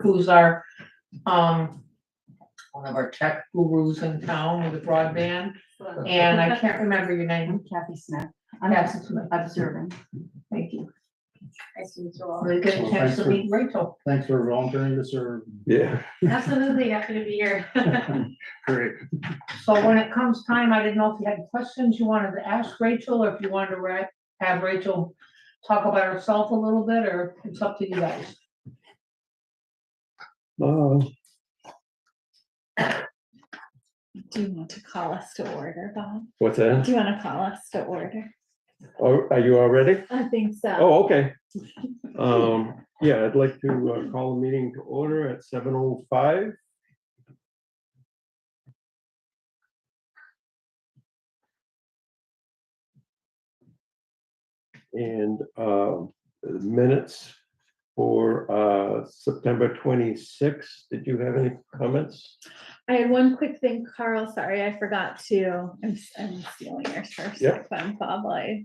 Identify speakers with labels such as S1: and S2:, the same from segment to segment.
S1: who's our, um, one of our tech gurus in town with broadband, and I can't remember your name.
S2: I'm Kathy Smith. I'm
S1: That's,
S2: observing.
S1: thank you.
S3: Nice to meet you all.
S1: We get a chance to meet Rachel.
S4: Thanks for volunteering to serve.
S5: Yeah.
S3: Absolutely, happy to be here.
S4: Great.
S1: So when it comes time, I didn't know if you had questions you wanted to ask Rachel, or if you wanted to ra- have Rachel talk about herself a little bit, or it's up to you guys.
S5: Uh,
S6: Do you want to call us to order, Bob?
S5: what's that?
S6: Do you want to call us to order?
S5: Oh, Are you all ready?
S6: I think so.
S5: Oh, okay. Um, yeah, I'd like to uh, call a meeting to order at seven oh five. And uh, minutes for uh, September twenty-sixth. Did you have any comments?
S6: I had one quick thing, Carl, sorry, I forgot to, I'm, s- I'm stealing yours first. if
S5: Yep.
S6: I'm Bob, I,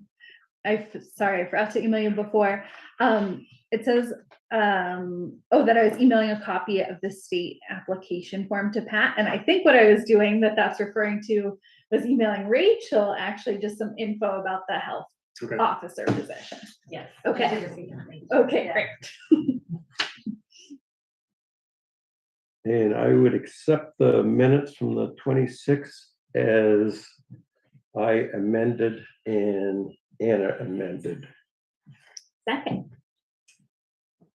S6: I, f- sorry, I forgot to email you before. Um, it says, um, oh, that I was emailing a copy of the state application form to Pat, and I think what I was doing that that's referring to was emailing Rachel, actually, just some info about the health
S4: Okay.
S6: officer position.
S3: Yes.
S6: Okay.
S3: Good to see you. Thank you.
S6: Okay,
S3: Yeah.
S6: great.
S5: And I would accept the minutes from the twenty-sixth as I amended and Anna amended.
S6: Second,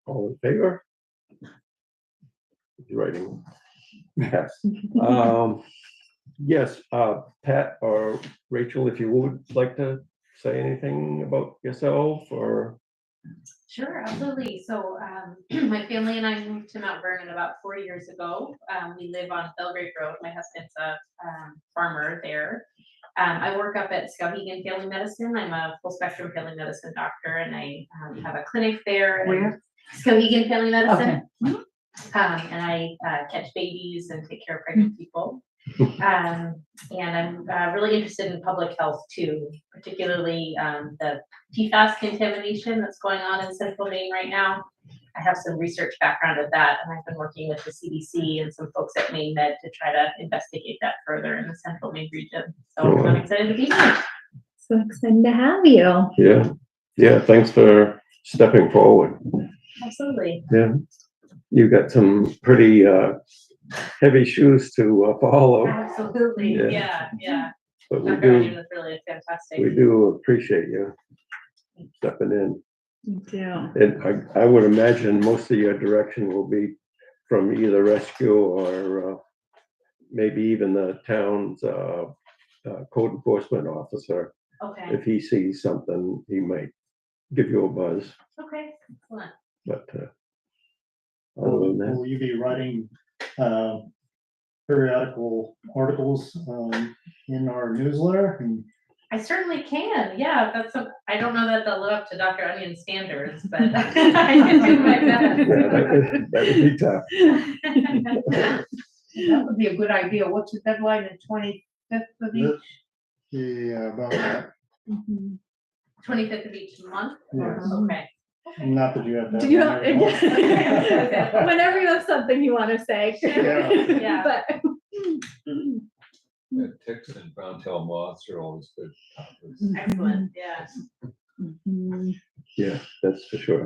S5: All in favor? He's Writing. Yes. Um, Yes, uh, Pat or Rachel, if you would like to say anything about yourself or,
S3: Sure, absolutely. So um, my family and I moved to Mount Vernon about four years ago. Um, we live on Belgrade Road. My husband's a um, farmer there. Um, I work up at Skowhegan Family Medicine. I'm a full spectrum family medicine doctor, and I um, have a clinic there. and-
S2: Where?
S3: Skowhegan Family Medicine.
S2: Okay.
S3: Um, and I uh, catch babies and take care of pregnant people. Um, and I'm uh, really interested in public health too, particularly um, the PFAS contamination that's going on in central Maine right now. I have some research background of that, and I've been working with the CDC and some folks at Maine Med to try to investigate that further in the central Maine region. So I'm excited to be here.
S6: so excited to have you.
S5: yeah, yeah, thanks for stepping forward.
S3: Absolutely.
S5: Yeah. You got some pretty uh, heavy shoes to uh, follow.
S3: Absolutely.
S5: Yeah.
S3: Yeah, yeah.
S5: But we
S3: Mount Vernon
S5: do,
S3: is really fantastic.
S5: we do appreciate you stepping in.
S6: You do.
S5: And I, I would imagine most of your direction will be from either rescue or uh, maybe even the town's uh, uh, code enforcement officer.
S3: Okay,
S5: If he sees something, he might give you a buzz,
S3: okay, excellent.
S5: but uh, other
S4: Will
S5: than that,
S4: will you be writing uh, periodical articles um, in our newsletter? And
S3: I certainly can. Yeah, that's a, I don't know that they'll live up to Dr. Onion standards, but I can do my
S5: yeah, that
S3: best.
S5: would- that would be tough.
S1: That would be a good idea. What's the deadline, the twenty-fifth of each?
S4: the- Yeah, about that.
S6: Mhm.
S3: Twenty-fifth of each month?
S4: Yes.
S3: Okay.
S4: Not that you have that.
S6: Do you have,
S4: one right now.
S6: whenever you have something you want to say.
S4: Yeah.
S3: Yeah.
S6: But
S7: Yeah, ticks and brown tail moths are always good. topics.
S3: Excellent, yeah.
S6: Mhm.
S5: Yeah, that's for sure.